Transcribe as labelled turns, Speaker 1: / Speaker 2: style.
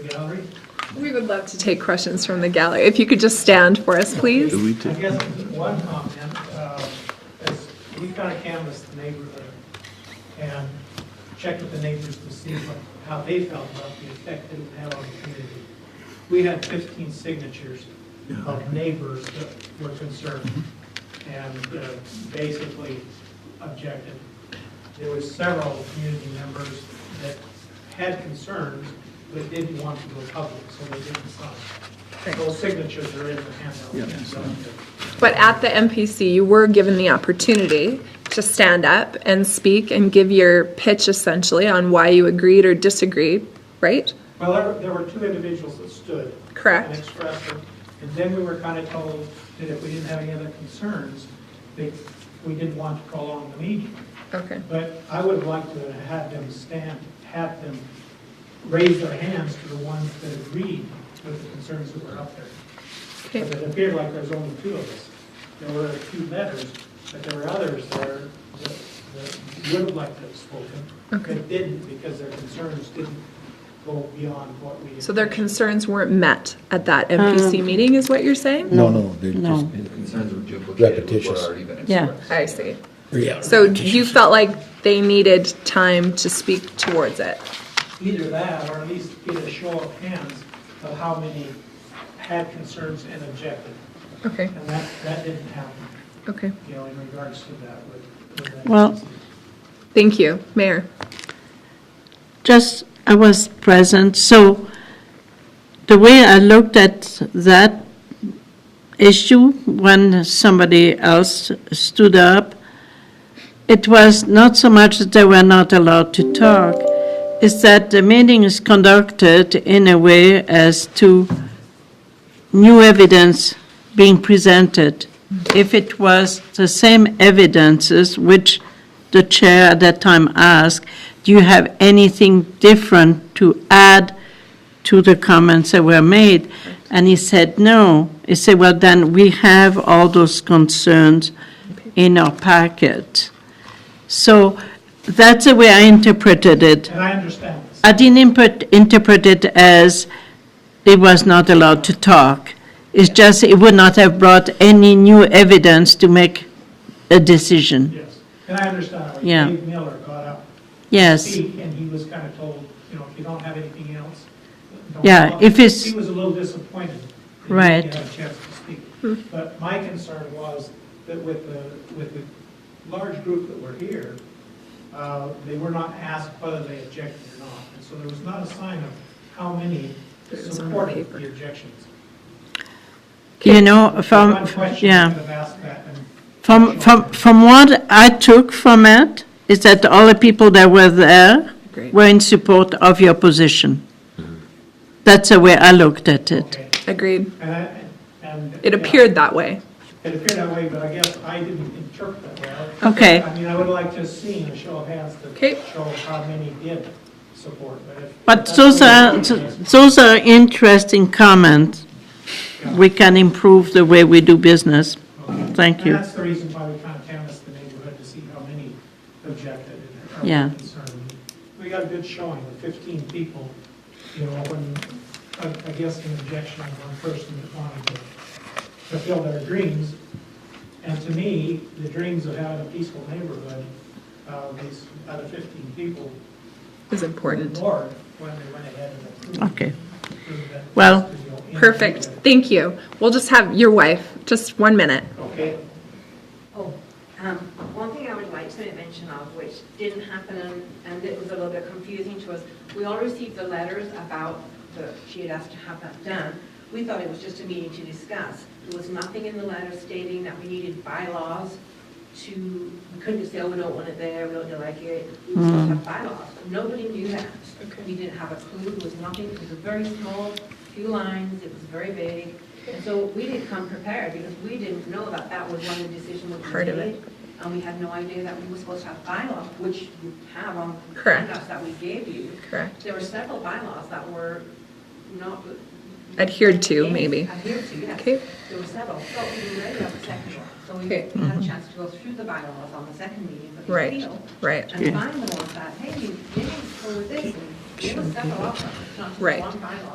Speaker 1: We would love to take questions from the gallery. If you could just stand for us, please.
Speaker 2: Do we
Speaker 3: I
Speaker 2: take?
Speaker 3: guess one comment, uh, is we kind of canvassed the neighborhood and checked with the neighbors to see what- how they felt about the effect that it had on the community. We had 15 signatures of neighbors that were concerned and uh, basically objected. There was several community members that had concerns but didn't want to go public, so they didn't sign. Those signatures are in the handout.
Speaker 1: But at the MPC, you were given the opportunity to stand up and speak and give your pitch essentially on why you agreed or disagreed, right?
Speaker 3: Well, there were- there were two individuals that stood.
Speaker 1: Correct.
Speaker 3: And expressed them. And then we were kind of told that if we didn't have any other concerns, that we didn't want to prolong the meeting.
Speaker 1: Okay.
Speaker 3: But I would have liked to have had them stand, have them raise their hands to the ones that agreed with the concerns that were up there.
Speaker 1: Okay.
Speaker 3: Because it appeared like there's only two of us. There were a few letters, but there were others there that that would have liked to have spoken, but didn't because their concerns didn't go beyond what we.
Speaker 1: So their concerns weren't met at that MPC meeting, is what you're saying?
Speaker 4: No, no, they're
Speaker 5: No.
Speaker 4: just,
Speaker 6: Concerns were duplicated with what
Speaker 4: Repetitious.
Speaker 6: already been
Speaker 5: Yeah.
Speaker 6: expressed.
Speaker 1: I see.
Speaker 4: yeah.
Speaker 1: So you felt like they needed time to speak towards it?
Speaker 3: Either that, or at least get a show of hands of how many had concerns and objected.
Speaker 1: Okay,
Speaker 3: And that, that didn't happen,
Speaker 1: okay.
Speaker 3: you know, in regards to that with- with. that
Speaker 5: Well-
Speaker 3: agency.
Speaker 1: Thank you, Mayor.
Speaker 5: Just, I was present, so the way I looked at that issue when somebody else stood up, it was not so much that they were not allowed to talk, it's that the meeting is conducted in a way as to new evidence being presented. If it was the same evidences, which the chair at that time asked, do you have anything different to add to the comments that were made? And he said, no. He said, well, then we have all those concerns in our packet. So that's the way I interpreted it.
Speaker 3: And I understand this.
Speaker 5: I didn't input, interpret it as it was not allowed to talk. It's just, it would not have brought any new evidence to make a decision.
Speaker 3: Yes, and I understand, like,
Speaker 5: Yeah.
Speaker 3: Dave Miller got up to
Speaker 5: Yes,
Speaker 3: speak, and he was kind of told, you know, if you don't have anything else. don't
Speaker 5: Yeah,
Speaker 3: talk.
Speaker 5: if it's-
Speaker 3: He was a little disappointed. that he
Speaker 5: Right. Hmm.
Speaker 3: didn't have a chance to speak. But my concern was that with the, with the large group that were here, uh, they were not asked whether they objected or not. And so there was not a sign of how many
Speaker 1: It was on
Speaker 3: supported
Speaker 1: paper.
Speaker 3: the objections.
Speaker 5: you know,
Speaker 3: So One
Speaker 5: from,
Speaker 3: question, I
Speaker 5: yeah.
Speaker 3: could have asked that, and
Speaker 5: From, from, from what I took from it, is that all the people that were there
Speaker 1: Agreed.
Speaker 5: were in support of your position. That's the way I looked at it.
Speaker 3: okay,
Speaker 1: Agreed.
Speaker 3: and I, and.
Speaker 1: It
Speaker 3: yeah.
Speaker 1: appeared that way.
Speaker 3: It appeared that way, but I guess I didn't interpret that well.
Speaker 5: Okay.
Speaker 3: I mean, I would like to have seen a show of hands
Speaker 1: Okay.
Speaker 3: to show how many did support, but if.
Speaker 5: But uh,
Speaker 3: that's
Speaker 5: those
Speaker 3: the way
Speaker 5: are,
Speaker 3: it is,
Speaker 5: those are interesting comments.
Speaker 3: yeah.
Speaker 5: We can improve the way we do business.
Speaker 3: Okay.
Speaker 5: Thank you.
Speaker 3: And that's the reason why we kind of canvassed the neighborhood to see how many objected and
Speaker 5: Yeah.
Speaker 3: are concerned. We got a good showing with 15 people, you know, when, I I guess an objection on one person that wanted to fulfill their dreams. And to me, the dreams of having a peaceful neighborhood, uh, these other 15 people
Speaker 1: Is
Speaker 3: were
Speaker 1: important.
Speaker 3: ignored when they went ahead and approved.
Speaker 5: Okay.
Speaker 3: approved that,
Speaker 5: Well,
Speaker 3: you know, in-
Speaker 1: Perfect, thank you. We'll just have your wife, just one minute.
Speaker 3: Okay.
Speaker 7: Oh, um, one thing I would like to make mention of, which didn't happen and- and it was a little bit confusing to us, we all received the letters about the, she had asked to have that done. We thought it was just a meeting to discuss. There was nothing in the letter stating that we needed bylaws to, we couldn't just say, oh, we don't want it there, we don't like it. We just
Speaker 1: Mm-hmm.
Speaker 7: have bylaws. Nobody knew that. We didn't have a clue, there was nothing, it was a very small, few lines, it was very vague. And so we didn't come prepared because we didn't know that that was one of the decisions that was
Speaker 1: Part of it.
Speaker 7: made. And we had no idea that we were supposed to have bylaws, which you have on the
Speaker 1: Correct.
Speaker 7: handouts that we gave you.
Speaker 1: Correct.
Speaker 7: There were several bylaws that were not.
Speaker 1: Adhered to, maybe.
Speaker 7: Adhered to, yes.
Speaker 1: Okay.
Speaker 7: There were several, so we were ready on the second one. So we
Speaker 1: Okay. Mm-hmm.
Speaker 7: had a chance to go through the bylaws on the second meeting, but we
Speaker 1: Right,
Speaker 7: failed.
Speaker 1: right.
Speaker 7: And find the ones that, hey, you didn't go with this, and there were several options, not just
Speaker 1: Right.
Speaker 7: one bylaw.